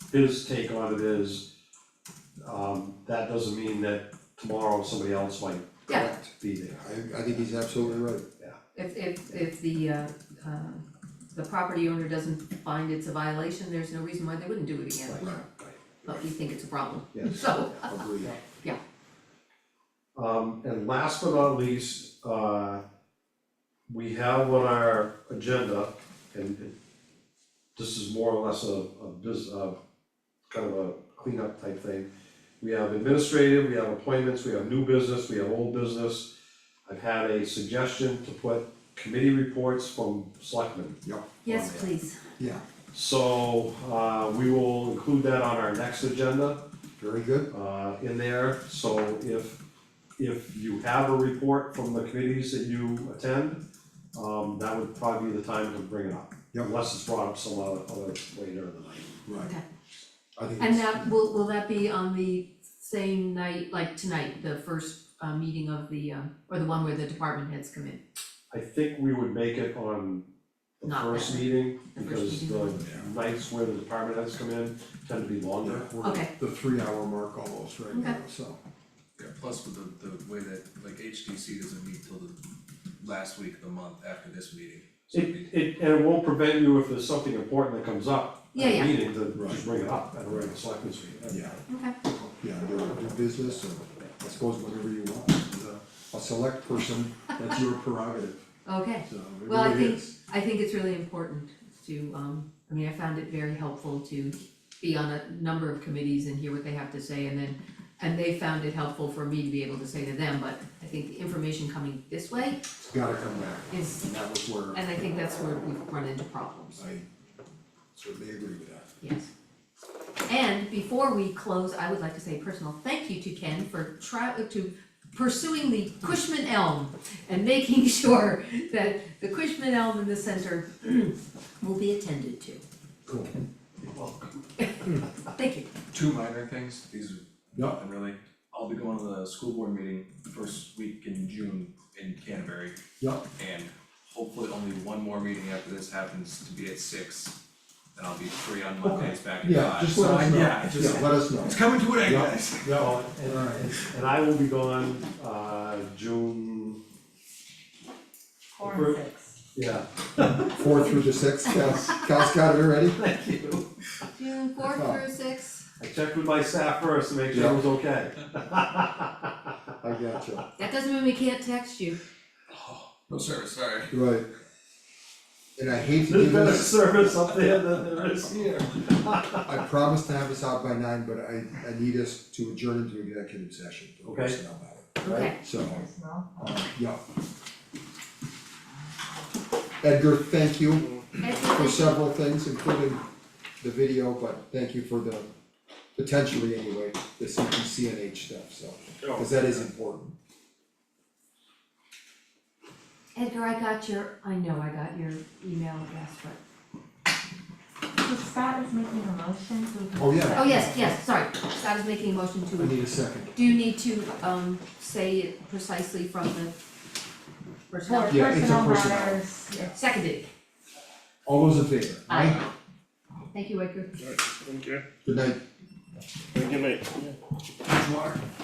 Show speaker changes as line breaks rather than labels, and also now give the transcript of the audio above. his take on it is, um, that doesn't mean that tomorrow somebody else might
Yeah.
correct be there.
I I think he's absolutely right.
If if if the uh uh the property owner doesn't find it's a violation, there's no reason why they wouldn't do it again.
Right, right,
But we think it's a problem,
yes.
so,
Agreed.
Um, and last but not least, uh, we have on our agenda, and it- this is more or less a, a bus- uh, kind of a cleanup type thing. We have administrative, we have appointments, we have new business, we have old business. I've had a suggestion to put committee reports from selectmen.
yes, please,
Yeah,
So, uh, we will include that on our next agenda
very good.
uh, in there, so if, if you have a report from the committees that you attend, um, that would probably be the time to bring it up.
Yep.
Unless it's brought up some other, other later in the night.
Right.
Okay.
I think
and
it's,
that will will that be on the same night, like tonight, the first uh meeting of the uh, or the one where the department heads come in?
I think we would make it on the
Not
first
that.
meeting,
The first
because the
meeting.
nights where the department heads come in tend to be longer.
yeah, we're at
Okay.
the three hour mark almost right now, so,
Yeah, plus with the, the way that, like HDC doesn't meet till the last week of the month after this meeting, so it'd be-
It, it, and it won't prevent you if there's something important that comes up
Yeah,
at a
yeah.
meeting, to
Right.
just bring it up at a regular selectmen's meeting.
yeah,
Okay,
yeah, do do business or I suppose whatever you want. As a- A select person, that's your prerogative,
okay,
so it
Well, I
really
think-
is.
I think it's really important to um, I mean, I found it very helpful to be on a number of committees and hear what they have to say and then and they found it helpful for me to be able to say to them, but I think the information coming this way
It's gotta come back,
is,
and that was where
and I think that's where we've run into problems,
I certainly agree with that.
yes. And before we close, I would like to say a personal thank you to Ken for try, to pursuing the Cushman elm and making sure that the Cushman elm in the center will be attended to.
Cool.
Thank you.
two minor things, these are
Yeah,
nothing really. I'll be going to the school board meeting first week in June in Canterbury.
Yeah.
And hopefully only one more meeting after this happens to be at six, and I'll be free on Mondays back in
yeah,
five,
just
so
let
I,
us know,
yeah, just.
yeah, let us know.
It's coming to an end,
Yeah.
guys.
Yeah,
Oh, and-
Alright.
and, and I will be gone, uh, June,
Four
Appro-
and six.
yeah,
four through to six, Cal's, Cal's got it already?
thank you.
June fourth
Oh.
through six,
I checked with my staff first to make sure it was okay.
I got you.
that doesn't mean we can't text you.
No service, sorry.
Right. And I hate to do
There's better
this,
service up there than there is here.
I promised to have us out by nine, but I, I need us to adjourn into executive session for
Okay.
personnel matter,
Okay.
right? So,
Personnel.
uh, yeah. Edgar, thank you for several things, including the video, but thank you for the, potentially anyway, the CPCNH stuff, so, cause that is important.
Edgar, I got your, I know I got your email address, but,
So Scott is making a motion to.
Oh, yeah.
oh, yes, yes, sorry, Scott is making a motion
I
to,
need a second.
do you need to, um, say it precisely from the personnel?
For
Yeah, it's a
personnel
personnel.
matters,
Seconded,
All those in favor?
aye. Thank you, Edgar.
Thank you.
Good night.
Good night.